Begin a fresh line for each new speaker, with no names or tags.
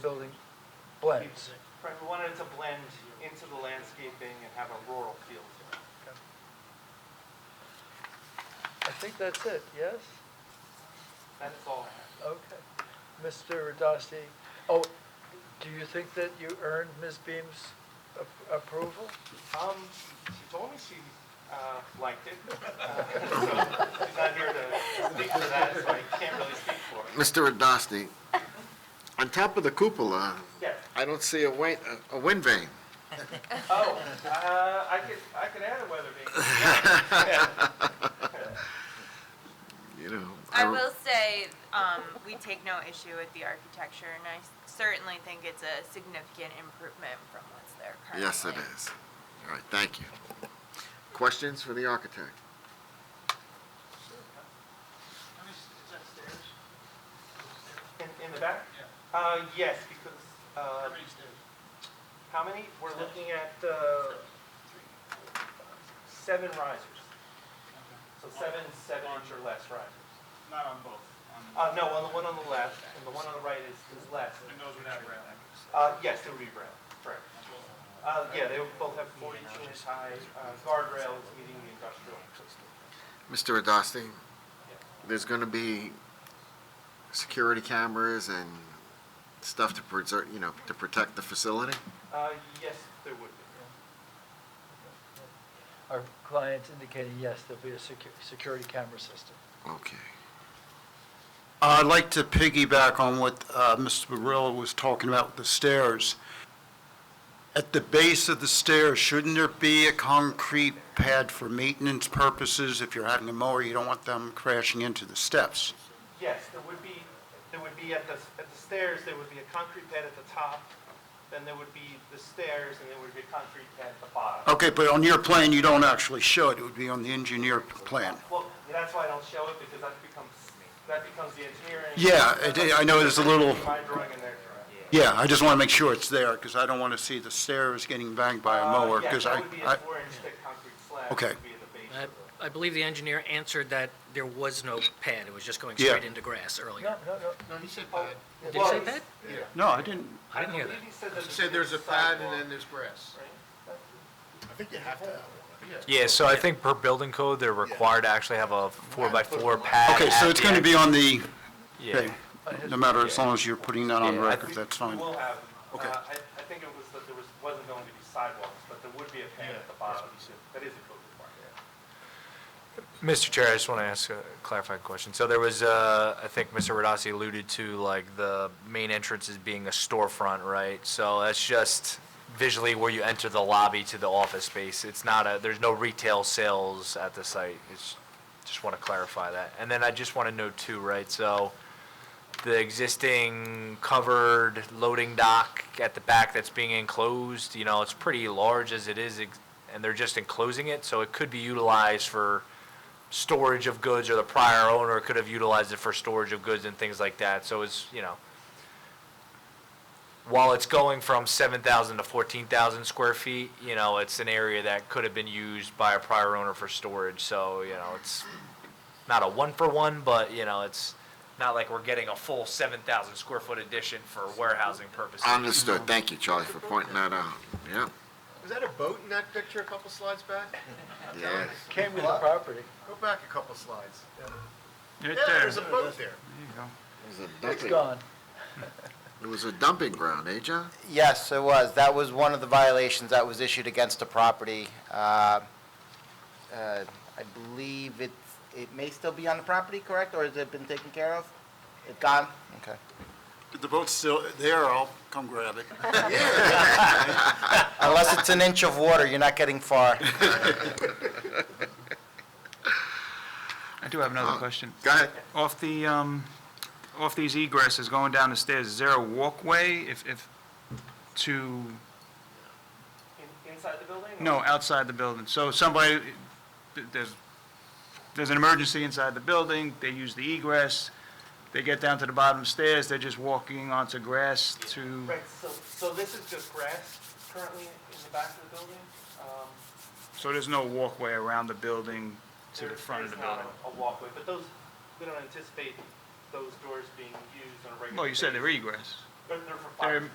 building blends.
Right, we wanted it to blend into the landscaping and have a rural feel to it.
I think that's it, yes?
That's all I have.
Okay. Mr. Radasti, oh, do you think that you earned Ms. Beam's a- approval?
Um, she told me she, uh, liked it. Uh, so She's not here to speak for that, so I can't really speak for her.
Mr. Adasti, on top of the cupola,
Yes.
I don't see a wind, a wind vane.
Oh, uh, I could, I could add a weather vane. Yeah.
You know,
I will say, um, we take no issue with the architecture, and I certainly think it's a significant improvement from what's there currently.
Yes, it is. All right, thank you. Questions for the architect?
In, in the back? Yeah. Uh, yes, because, uh. How many stairs? How many? We're looking at, uh, seven risers. So seven, seven inch or less risers.
Not on both, on,
Uh, no, on the one on the left, and the one on the right is, is less.
and those would have rail.
Uh, yes, they would be brown, correct. Uh, yeah, they would both have forty-two inch high, uh, guardrails meeting the industrial.
Mr. Adasti, there's going to be security cameras and stuff to preserve, you know, to protect the facility?
Uh, yes, there would be.
Our client's indicating, yes, there'll be a secu- security camera system.
Okay.
I'd like to piggyback on what uh, Mr. Barilla was talking about with the stairs. At the base of the stairs, shouldn't there be a concrete pad for maintenance purposes? If you're having a mower, you don't want them crashing into the steps.
Yes, there would be, there would be at the, at the stairs, there would be a concrete pad at the top, then there would be the stairs, and there would be a concrete pad at the bottom.
Okay, but on your plan, you don't actually show it. It would be on the engineer plan.
Well, that's why I don't show it, because that becomes, that becomes the engineering.
Yeah, I did- I know there's a little-
My drawing and their drawing.
Yeah, I just want to make sure it's there because I don't want to see the stairs getting banged by a mower
Uh, yes,
because Oh, I,
that would be
I-
a four-inch thick concrete slab. that
Okay.
would be in the base
I-
of the-
I believe the engineer answered that there was no pad, it was just going
Yeah.
straight into grass
No,
earlier.
no, no,
Did he say
Well,
pad?
no, I didn't,
I didn't hear that.
believe he said that
there's grass. I think you have to have one.
Yeah, so I think per building code, they're required to actually have a four-by-four pad.
okay, so
at
it's
the
going to
end.
be on the,
Yeah.
okay, no matter, as long as you're putting that on
Yeah, I
record,
think
that's
We
fine.
will have, uh,
Okay.
I, I think it was that there was, wasn't going to be sidewalks, but there would be a pad at the bottom. That is a code requirement.
Mr. Chair, I just want to ask a clarified question. So there was, uh, I think Mr. Radasi alluded to, like, the main entrance as being a storefront, right? So that's just visually where you enter the lobby to the office space. It's not a, there's no retail sales at the site. It's, just want to clarify that. And then I just want to know too, right, so the existing covered loading dock at the back that's being enclosed, you know, it's pretty large as it is, ex- and they're just enclosing it, so it could be utilized for storage of goods, or the prior owner could have utilized it for storage of goods and things like that, so it's, you know, while it's going from seven thousand to fourteen thousand square feet, you know, it's an area that could have been used by a prior owner for storage, so, you know, it's not a one-for-one, but, you know, it's not like we're getting a full seven thousand square foot addition for warehousing purposes.
Understood. Thank you, Charlie, for pointing that out. Yeah,
Was that a boat in that picture a couple slides back?
yeah.
came with the property.
Go back a couple slides. Yeah, there's a boat there.
It's gone.
It was a dumping ground, eh, John?
Yes, it was. That was one of the violations that was issued against the property. Uh, uh, I believe it, it may still be on the property, correct, or has it been taken care of? It gone? Okay.
The boat's still there, I'll come grab it.
Unless it's an inch of water, you're not getting far.
I do have another question.
Uh, Go ahead.
Off the, um, off these egresses going down the stairs, is there a walkway if, if, to,
In, inside the building? or-
no, outside the building? So somebody, there's, there's an emergency inside the building, they use the egress, they get down to the bottom stairs, they're just walking onto grass to,
Right, so, so this is just grass currently in the back of the building? Um,
so there's no walkway around the building to the
there-
front of the
there's not
building?
A a walkway, but those, we don't anticipate those doors being used on a regular.
Well, you said
basis.
they're egress.
They're- they're for
They're-